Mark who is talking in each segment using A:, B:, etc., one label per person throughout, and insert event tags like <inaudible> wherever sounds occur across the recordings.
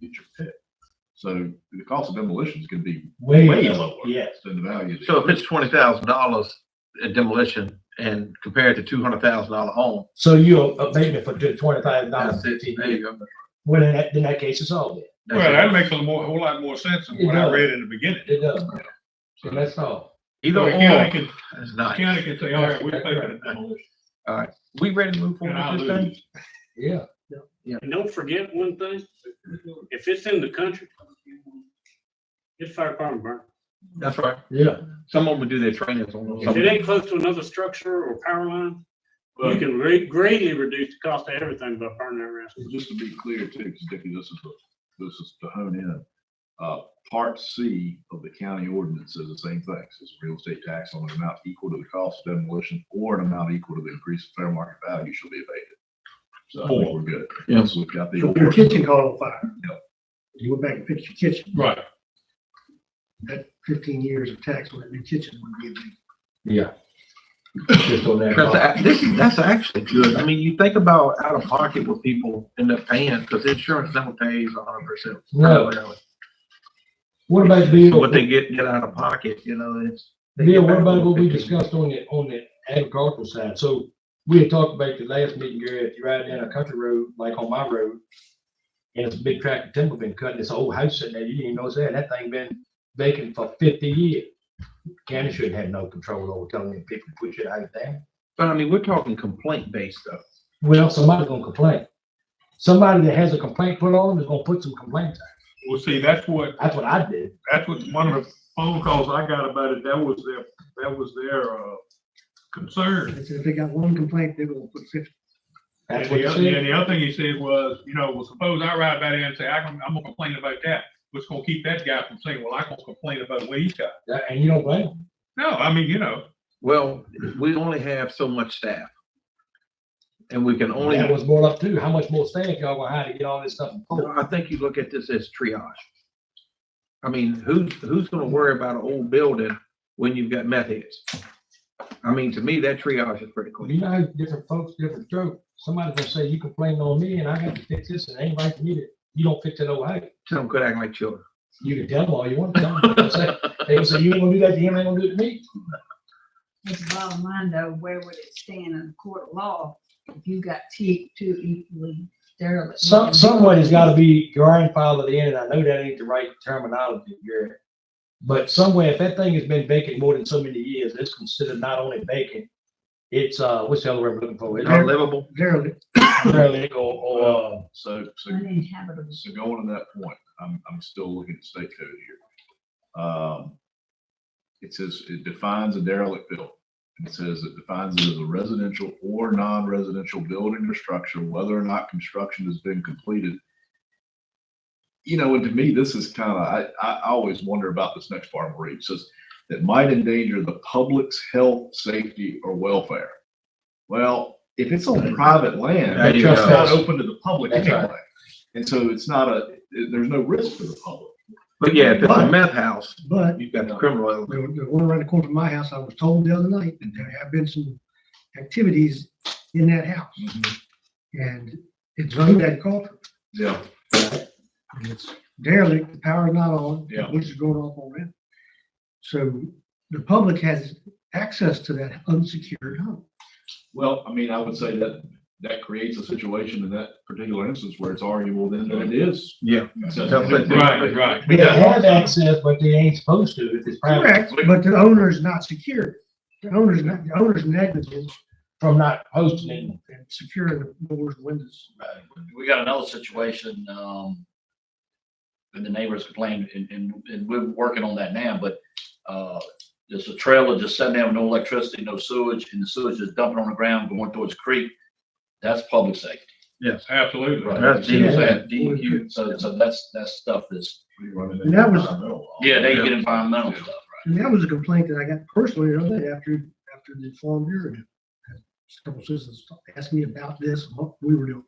A: get your pick. So the cost of demolition is gonna be
B: Way
A: way
B: low,
A: lower
B: yes.
A: than the value. of the-
C: So if it's twenty thousand dollars in demolition and compared to two hundred thousand dollar home,
B: So uh, you abatement for twenty thousand dollars,
C: that's it,
B: fifteen
C: there
B: years,
C: you go.
B: well, then that, then that case is all.
C: That's
D: Well, that
C: it.
D: makes a more, whole lot more sense than
B: It
D: what I
B: does.
D: read in the beginning.
B: It does, so that's all.
C: Either
D: So The county
C: or,
D: can,
C: that's
D: the
C: nice.
D: county can say, all right, we're taking it down.
C: We ready to move
D: And I
C: forward with this thing?
D: lose.
B: Yeah.
E: And don't forget one thing, if it's in the country, it's fire department burn.
C: That's right.
B: Yeah.
C: Someone would do their trainings on those.
E: If it ain't close to another structure or power line, well, it can re- greatly reduce the cost of everything by burning that rest.
A: Just to be clear too, because Dickie, this is, the- this is to hone in. Uh, part C of the county ordinance says the same thing. It Says real estate tax on an amount equal to the cost of demolition or an amount equal to the increase in fair market value shall be abated. So I think we're good.
C: Yeah.
A: So we've got the.
F: If Your
A: ordinance.
F: kitchen caught on fire.
A: Yep.
F: You went back and fixed your kitchen,
D: Right.
F: that fifteen years of tax on that new kitchen would be a big.
B: Yeah. Just on that.
C: Because
B: part.
C: that- this, that's actually good. I mean, you think about out of pocket what people end up paying, because insurance never pays a hundred percent.
B: No. What about the
C: So
B: bill,
C: What they get, get out of pocket, you know, it's. they
B: Bill,
C: get
B: what
C: back
B: about what we
C: 15.
B: discussed on the, on the agricultural side? So we had talked about the last meeting, Gary, if you ride down a country road, like on my road, and it's a big tract of timber been cut, and this old house sitting there, you didn't even know that, that thing been vacant for fifty years. County shouldn't have no control over telling them people to put your house down.
C: But I mean, we're talking complaint based stuff.
B: Well, somebody's gonna complain. Somebody that has a complaint put on is gonna put some complaints out.
D: Well, see, that's what,
B: That's what I did.
D: that's what, one of the phone calls I got about it, that was their, that was their, uh, concern.
F: They said if they got one complaint, they will put fifty.
D: And
B: That's what
D: the,
B: you
D: other- and
B: said.
D: the other thing he said was, you know, well, suppose I ride by there and say, I can, I'm gonna complain about that. What's gonna keep that guy from saying, well, I gonna complain about what he's got?
B: That- And you don't blame them.
D: No, I mean, you know,
C: Well, we only have so much staff. And we can only,
B: That was brought up too. How much more staff y'all gonna hire to get all this stuff? pulled?
C: I think you look at this as triage. I mean, who's, who's gonna worry about an old building when you've got meth heads? I mean, to me, that triage is pretty clean.
B: You know, how different folks, different joke. Somebody's gonna say, you complained on me and I got to fix this and it ain't right for me to, you don't fix it old house.
C: Some could act like children.
B: You can tell them all you want. to tell them. They're gonna say- They gonna say, you ain't gonna do that to him, ain't gonna do it to me.
G: It's the bottom line though, where would it stand in the court of law if you got two, two equally derelict?
B: Some, somebody's gotta be grandfathered in, and I know that ain't the right terminology here. But somewhere, if that thing has been vacant more than so many years, it's considered not only vacant, it's, uh, what's the other word I'm looking for? It's
C: Unlivable.
F: Derelict,
B: derelict <laughs> or, or, uh,
A: So, so.
G: Uninhabitable.
A: So going to that point, I'm, I'm still looking at state code here. Um, it says, it defines a derelict building. It says it defines it as a residential or non-residential building or structure, whether or not construction has been completed. You know, and to me, this is kind of, I, I I always wonder about this next part where it says that might endanger the public's health, safety, or welfare. Well, if it's on private land,
C: There you
A: it's not
B: go.
A: open to the public
B: That's right.
A: anyway. And so it's not a, there's no risk to the public.
C: But yeah, if it's a meth house,
F: but
C: you've got the criminal element.
F: there was there was one around the corner from my house, I was told the other night that there have been some activities in that house.
B: Mm-hmm.
F: And it's zoned agriculture,
A: Yeah,
F: and it's derelict, the power's not on,
A: Yeah.
F: which is going off on rent. So the public has access to that unsecured home.
A: well, I mean, I would say that, that creates a situation in that particular instance where it's arguable then that it is.
C: Yeah.
D: right, right.
B: they have access, but they ain't supposed to if it's private,
F: Correct, but the owner's not secured. The owner's not, the owner's negligent
B: from not posting it.
F: and securing the doors, and windows.
H: we got another situation, um, and the neighbors complained, and, and, and we're working on that now, but, uh, there's a trailer just sitting there with no electricity, no sewage, and the sewage is dumping on the ground going towards the creek. That's public safety.
D: Absolutely.
H: right?
C: That's
H: You know what I'm
C: DEQ.
H: saying? DEQ. So, so that's, that's stuff that's,
F: And that was-
H: yeah, they get environmental stuff.
F: And that was a complaint that I got personally the other day after, after the Farm Bureau. Several citizens asked me about this, and what we were doing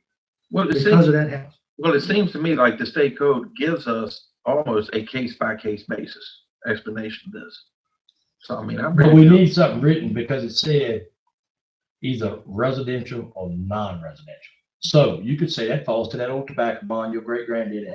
C: Well, it
F: because
C: seems,
F: of that house.
C: well, it seems to me like the state code gives us almost a case by case basis explanation of this. So I mean, I'm.
B: But
C: ready
B: we
C: to-
B: need something written because it said either residential or non-residential. So you could say that falls to that old tobacco bond your great granddad